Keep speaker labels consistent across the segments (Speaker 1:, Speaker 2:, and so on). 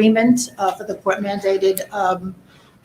Speaker 1: agreement uh, for the court mandated um,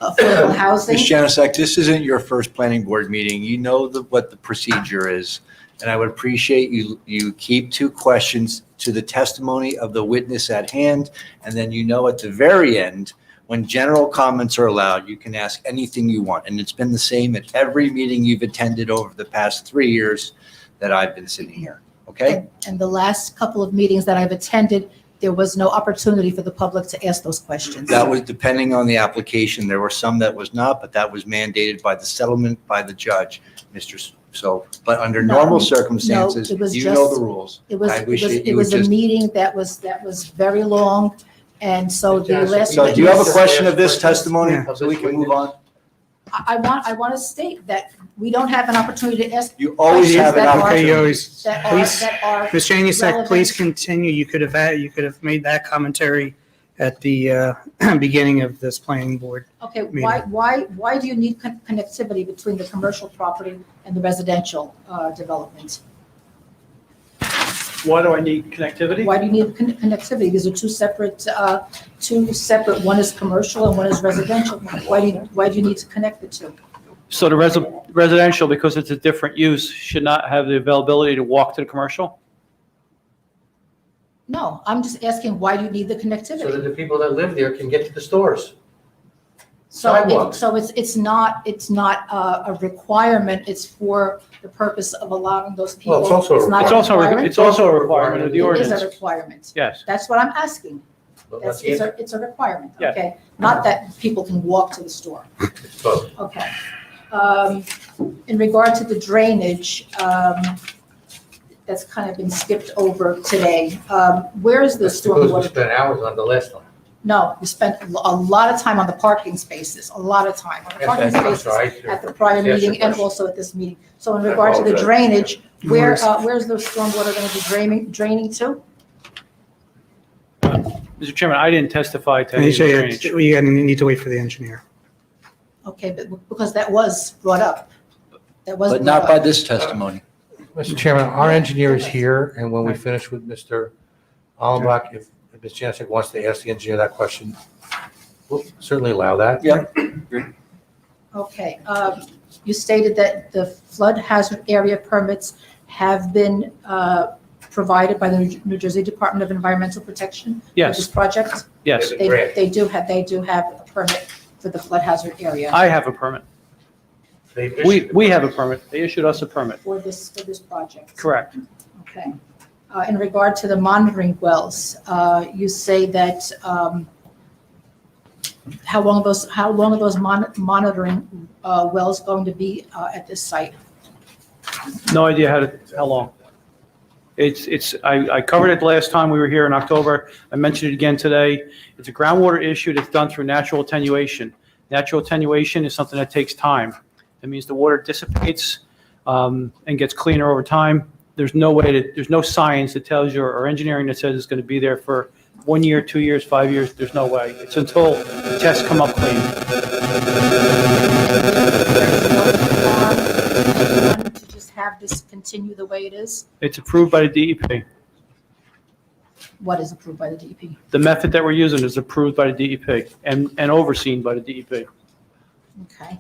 Speaker 1: affordable housing.
Speaker 2: Ms. Janusik, this isn't your first planning board meeting. You know the, what the procedure is. And I would appreciate you, you keep two questions to the testimony of the witness at hand. And then you know at the very end, when general comments are allowed, you can ask anything you want. And it's been the same at every meeting you've attended over the past three years that I've been sitting here. Okay?
Speaker 1: And- And the last couple of meetings that I've attended, there was no opportunity for the public to ask those questions.
Speaker 2: That was depending on the application. There were some that was not, but that was mandated by the settlement by the judge, Mr. S- So, but under
Speaker 1: No,
Speaker 2: normal
Speaker 1: no,
Speaker 2: circumstances,
Speaker 1: it was
Speaker 2: you know
Speaker 1: just-
Speaker 2: the rules.
Speaker 1: It was,
Speaker 2: I
Speaker 1: it
Speaker 2: wish
Speaker 1: was,
Speaker 2: that
Speaker 1: it
Speaker 2: you
Speaker 1: was a
Speaker 2: would just-
Speaker 1: meeting that was, that was very long. And so the last.
Speaker 2: So do you have a
Speaker 1: witness-
Speaker 2: question of this testimony
Speaker 3: Yeah.
Speaker 2: so we can move on?
Speaker 1: I I want, I want to state that we don't have an opportunity to ask
Speaker 2: You always
Speaker 1: Questions
Speaker 2: have an
Speaker 1: that are-
Speaker 3: Okay, you
Speaker 2: opportunity.
Speaker 3: always,
Speaker 1: that are,
Speaker 3: please,
Speaker 1: that are,
Speaker 3: Ms. Janusik,
Speaker 1: relevant.
Speaker 3: please continue. You could have, had- you could have made that commentary at the uh, beginning of this planning board.
Speaker 1: okay, why, why, why do you need con- connectivity between the commercial property and the residential uh, development?
Speaker 4: Why do I need connectivity?
Speaker 1: Why do you need con- connectivity? These are two separate, uh, two separate, one is commercial and one is residential. Why do you, why do you need to connect the two?
Speaker 4: So the resi- residential, because it's a different use, should not have the availability to walk to the commercial?
Speaker 1: No, I'm just asking, why do you need the
Speaker 5: so that
Speaker 1: connectivity?
Speaker 5: the people that live there can get to the stores.
Speaker 1: So, it-
Speaker 5: sidewalks.
Speaker 1: so it's, it's not, it's not uh, a requirement, it's for the purpose of allowing those people.
Speaker 5: Well, it's also a
Speaker 1: not
Speaker 4: It's also, a- it's also a requirement of the
Speaker 1: It is a
Speaker 4: ordinance.
Speaker 1: requirement.
Speaker 4: Yes.
Speaker 1: That's what I'm asking.
Speaker 5: But
Speaker 1: That's,
Speaker 5: let's
Speaker 1: it's
Speaker 5: get,
Speaker 1: a, it's a requirement,
Speaker 4: Yeah.
Speaker 1: okay? Not that people can walk to the store.
Speaker 5: it's both.
Speaker 1: Okay. Um, In regard to the drainage, um, that's kind of been skipped over today. Um, Where is the
Speaker 5: That's because we
Speaker 1: stormwater?
Speaker 5: spent hours on the last one.
Speaker 1: No, we spent a lot of time on the parking spaces, a lot of time on the parking
Speaker 5: Yes, that's- I'm
Speaker 1: spaces
Speaker 5: sorry.
Speaker 1: at the prior
Speaker 5: Yes, your
Speaker 1: meeting and
Speaker 5: question.
Speaker 1: also at this meeting. So in
Speaker 5: I
Speaker 1: regard to the
Speaker 5: apologize.
Speaker 1: drainage, where,
Speaker 3: Where's-
Speaker 1: uh, where's the stormwater going to be draining, draining to?
Speaker 4: Mr. Chairman, I didn't testify to any of the
Speaker 3: AJ,
Speaker 4: drainage.
Speaker 3: it's- We need to wait for the engineer.
Speaker 1: Okay, but because that was brought up. That was
Speaker 2: But
Speaker 1: brought
Speaker 2: not by
Speaker 1: up.
Speaker 2: this testimony.
Speaker 5: Mr. Chairman, our engineer is here, and when we finish with Mr. Allenbach, if if Ms. Janusik wants to ask the engineer that question, we'll certainly allow that.
Speaker 1: Okay, um, you stated that the flood hazard area permits have been uh, provided by the New Jersey Department of Environmental Protection? for This
Speaker 4: Yes,
Speaker 1: project?
Speaker 4: yes.
Speaker 1: They, they do have, they do have a permit for the flood hazard area
Speaker 4: I have a permit.
Speaker 5: They
Speaker 4: We,
Speaker 5: issued-
Speaker 4: we have a permit. They issued us a permit.
Speaker 1: for this, for this project?
Speaker 4: Correct.
Speaker 1: Okay. Uh, In regard to the monitoring wells, uh, you say that, um, how long are those, how long are those mon- monitoring uh, wells going to be uh, at this site?
Speaker 4: No idea how to, how long. It's, it's, I, I covered it last time we were here in October. I mentioned it again today. It's a groundwater issue that's done through natural attenuation. Natural attenuation is something that takes time. That means the water dissipates um, and gets cleaner over time. There's no way to, there's no science that tells you or engineering that says it's going to be there for one year, two years, five years. There's no way. It's until tests come up clean.
Speaker 1: To just have this continue the way it is,
Speaker 4: It's approved by the E DEP.
Speaker 1: what is approved by the E DEP?
Speaker 4: The method that we're using is approved by the DEP and, and overseen by the E DEP.
Speaker 1: Okay.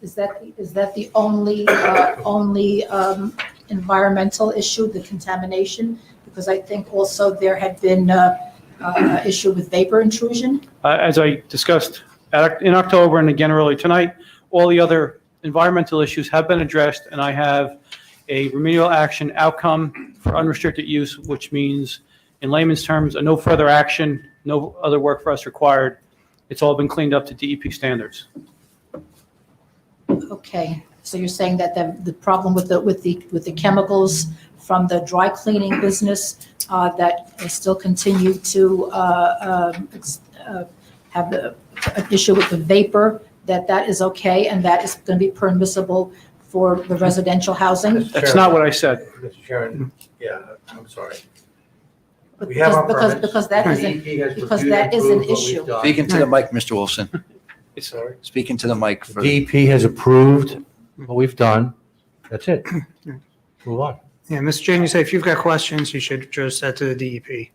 Speaker 1: Is that, is that the only, uh, only um, environmental issue, the contamination? Because I think also there had been uh, uh, issue with vapor intrusion.
Speaker 4: Uh, As I discussed at- in October and again earlier tonight, all the other environmental issues have been addressed, and I have a remedial action outcome for unrestricted use, which means, in layman's terms, a no further action, no other work for us required. It's all been cleaned up to DEP standards.
Speaker 1: Okay, so you're saying that the, the problem with the, with the, with the chemicals from the dry cleaning business uh, that still continue to uh, um, ex- uh, have the, an issue with the vapor, that that is okay and that is going to be permissible for the residential housing?
Speaker 5: Mr.
Speaker 4: That's
Speaker 5: Chairman-
Speaker 4: not what I said.
Speaker 5: Mr. Chairman, yeah, I'm sorry. We have our
Speaker 1: Because, because, because
Speaker 5: permits.
Speaker 1: that
Speaker 5: The
Speaker 1: isn't,
Speaker 5: DEP has
Speaker 1: because
Speaker 5: reviewed and
Speaker 1: that is an
Speaker 5: approved what we've
Speaker 1: issue.
Speaker 5: done.
Speaker 2: Speaking to the mic, Mr. Wilson.
Speaker 4: It's-
Speaker 5: Sorry.
Speaker 2: Speaking to the mic. for-
Speaker 5: The DEP has approved what we've done. That's it. Move on.
Speaker 3: Yeah, Ms. Janusik, if you've got questions, you should address that to the E DEP.